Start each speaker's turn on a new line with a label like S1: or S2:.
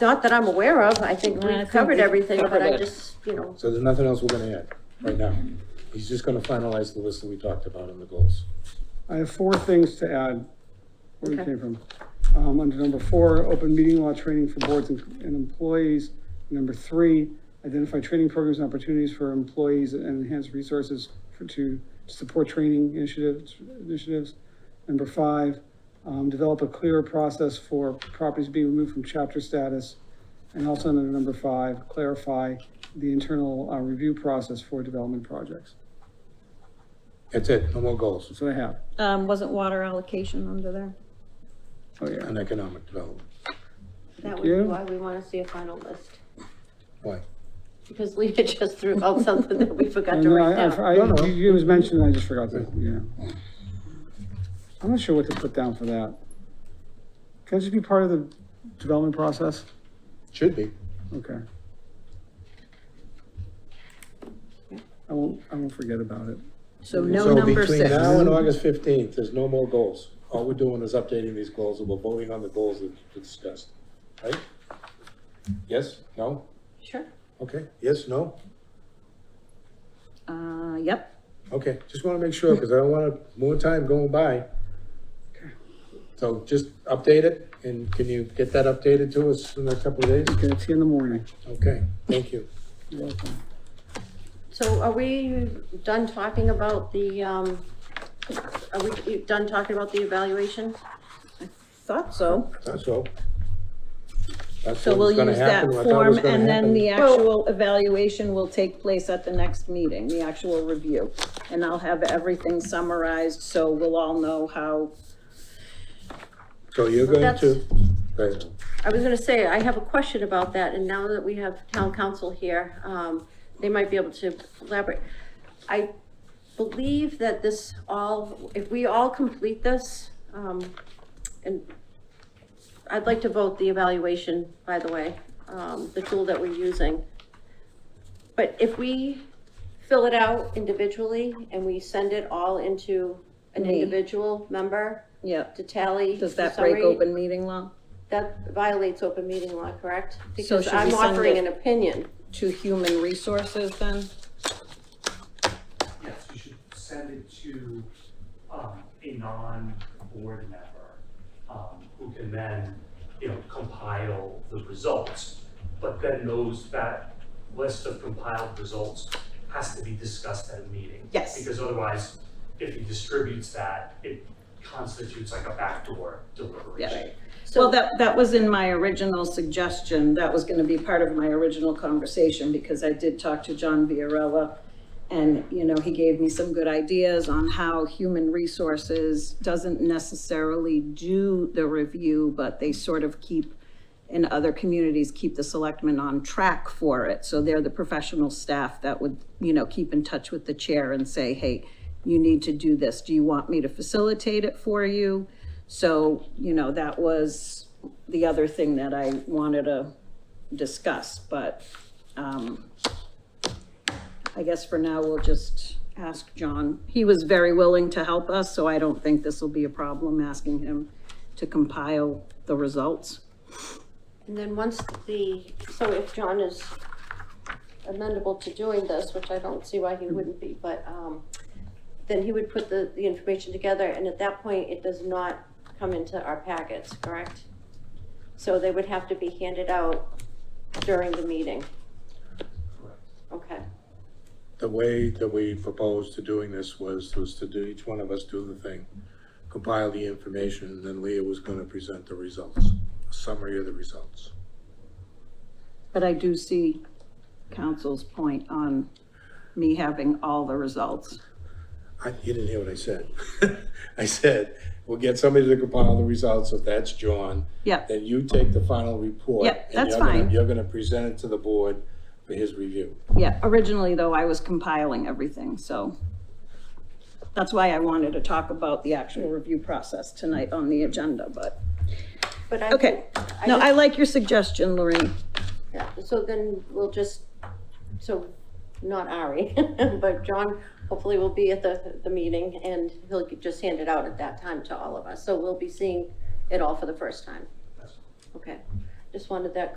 S1: Not that I'm aware of, I think
S2: No, I
S1: we've
S2: think
S1: covered
S2: we've
S1: everything, but
S2: covered
S1: I
S2: it.
S1: just, you know,
S3: So there's nothing else we're gonna add right now. He's just gonna finalize the list that we talked about in the goals.
S4: I have four things to add, where we
S1: Okay.
S4: came from. Um, under number four, open meeting law training for boards and and employees. Number three, identify training programs and opportunities for employees and enhance resources for, to support training initiatives, initiatives. Number five, um, develop a clearer process for properties being removed from chapter status. And also under number five, clarify the internal, uh, review process for development projects.
S3: That's it, no more goals
S4: That's what I have.
S2: Um, wasn't water allocation under there?
S4: Oh, yeah.
S3: on economic development.
S1: that
S4: Thank
S1: would be
S4: you.
S1: why we want to see a final list.
S3: Why?
S1: Because Lena just threw out something that we forgot to
S4: And
S1: write
S4: I,
S1: down.
S4: I,
S3: No, no.
S4: I- you- it was mentioned, and I just forgot that, yeah. I'm not sure what to put down for that. Can it just be part of the development process?
S3: Should be.
S4: Okay. I won't, I won't forget about it.
S2: So
S3: So between now and August fifteenth, there's no more goals. All we're doing is updating these goals and we're voting on the goals that we discussed, right? Yes, no,
S1: Sure.
S3: okay, yes, no,
S2: Uh, yep,
S3: okay. Just wanna make sure, because I don't want more time going by. So just update it and can you get that updated to us in a couple of days?
S4: Okay, it's in the morning.
S3: Okay, thank you.
S4: You're welcome.
S1: So are we done talking about the, um, are we done talking about the evaluation?
S2: thought so.
S3: That's all. That's
S2: So
S3: what
S2: we'll
S3: was gonna
S2: use that
S3: happen. I thought it was
S2: form
S3: gonna
S2: and then
S3: happen.
S2: the actual evaluation will take place at the next meeting, the actual review. And I'll have everything summarized, so we'll all know how,
S3: So you're going
S1: That's-
S3: to, right,
S1: I was gonna say, I have a question about that, and now that we have town council here, um, they might be able to elaborate. I believe that this all, if we all complete this, um, and I'd like to vote the evaluation, by the way, um, the tool that we're using. But if we fill it out individually and we send it all into an
S2: Me.
S1: individual member
S2: yeah.
S1: to tally.
S2: Does
S1: the
S2: that break
S1: summary,
S2: open meeting law
S1: that violates open meeting law, correct?
S2: So
S1: Because
S2: should we
S1: I'm
S2: send
S1: offering an
S2: it-
S1: opinion.
S2: to human resources then?
S5: Yes, you should send it to, um, a non-board member, um, who can then, you know, compile the results. But then those, that list of compiled results has to be discussed at a meeting.
S2: Yes.
S5: Because otherwise, if he distributes that, it constitutes like a backdoor deliberation.
S2: Well, that, that was in my original suggestion, that was gonna be part of my original conversation, because I did talk to John Viorella, and, you know, he gave me some good ideas on how human resources doesn't necessarily do the review, but they sort of keep, in other communities, keep the selectmen on track for it, so they're the professional staff that would, you know, keep in touch with the chair and say, hey, you need to do this, do you want me to facilitate it for you? So, you know, that was the other thing that I wanted to discuss, but, um, I guess for now, we'll just ask John. He was very willing to help us, so I don't think this will be a problem asking him to compile the results.
S1: And then once the, so if John is amendable to doing this, which I don't see why he wouldn't be, but, um, then he would put the, the information together, and at that point, it does not come into our packets, correct? So they would have to be handed out during the meeting.
S5: Correct.
S1: Okay,
S3: the way that we proposed to doing this was, was to do, each one of us do the thing, compile the information, and then Leah was gonna present the results, a summary of the results.
S2: But I do see council's point on me having all the results.
S3: I, you didn't hear what I said. I said, we'll get somebody to compile the results, if that's John.
S2: Yeah.
S3: Then you take the final report.
S2: Yeah,
S3: and
S2: that's
S3: you're gonna-
S2: fine.
S3: You're gonna present it to the board for his review.
S2: Yeah, originally though, I was compiling everything, so that's why I wanted to talk about the actual review process tonight on the agenda, but,
S1: but I.
S2: okay. No, I like your suggestion, Lorraine.
S1: Yeah, so then we'll just, so, not Ari, but John hopefully will be at the, the meeting and he'll just hand it out at that time to all of us. So we'll be seeing it all for the first time.
S5: Yes.
S1: Okay, just wanted that